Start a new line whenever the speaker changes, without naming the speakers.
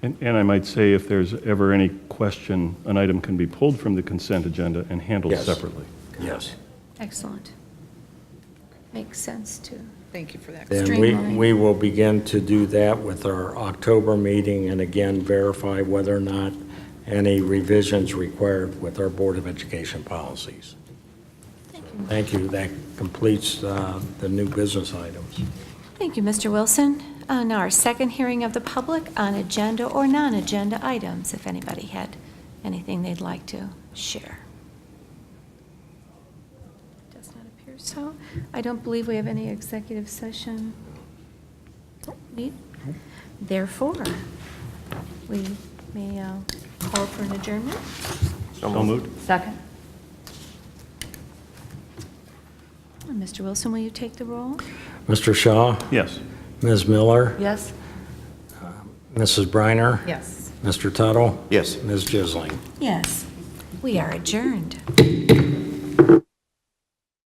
And, and I might say, if there's ever any question, an item can be pulled from the consent agenda and handled
Yes.
separately.
Yes.
Excellent. Makes sense, too.
Thank you for that.
And we,
Streamline.
we will begin to do that with our October meeting and again verify whether or not any revisions required with our Board of Education policies. Thank you. That completes uh, the new business items.
Thank you, Mr. Wilson. Uh, Now, our second hearing of the public on agenda or non-agenda items, if anybody had anything they'd like to share. Does not appear so. I don't believe we have any executive session. Don't need. Therefore, we may uh, call for an adjournment.
So moved.
Second?
And Mr. Wilson, will you take the roll?
Mr. Shaw,
Yes.
Ms. Miller,
Yes?
Mrs. Briner,
Yes.
Mr. Tuttle,
Yes.
Ms. Jisling.
Yes. We are adjourned.